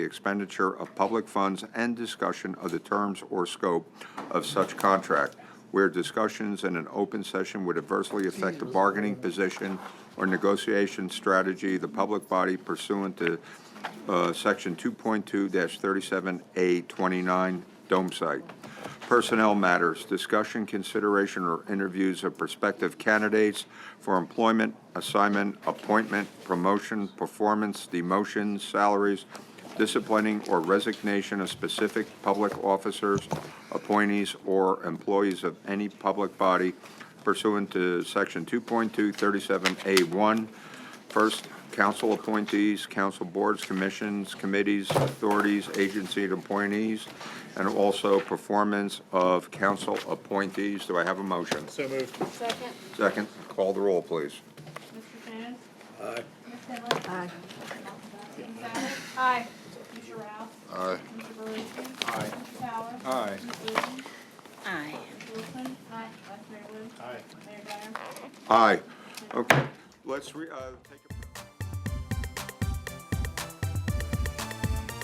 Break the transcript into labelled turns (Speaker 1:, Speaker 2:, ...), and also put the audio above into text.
Speaker 1: expenditure of public funds and discussion of the terms or scope of such contract, where discussions in an open session would adversely affect the bargaining position or negotiation strategy of the public body pursuant to uh, Section 2.2-37A29 Dome Site. Personnel matters, discussion, consideration, or interviews of prospective candidates for employment, assignment, appointment, promotion, performance, demotion, salaries, disciplining, or resignation of specific public officers, appointees, or employees of any public body pursuant to Section 2.237A1, First, council appointees, council boards, commissions, committees, authorities, agency and appointees, and also performance of council appointees. Do I have a motion?
Speaker 2: So moved.
Speaker 3: Second.
Speaker 1: Second, call the roll, please.
Speaker 3: Mr. Finn?
Speaker 2: Aye.
Speaker 3: Ms. Tillett? Aye. Ms. Abbott? Aye. Mr. Ralph?
Speaker 1: Aye.
Speaker 3: Mr. Beruski? Aye. Mr. Fowler?
Speaker 1: Aye.
Speaker 3: Ms. Wilson?
Speaker 4: Aye.
Speaker 3: Mr. Wilson? Aye. Vice Mayor Wood?
Speaker 2: Aye.
Speaker 3: Mayor Dyer?
Speaker 1: Aye. Okay, let's re, uh, take a.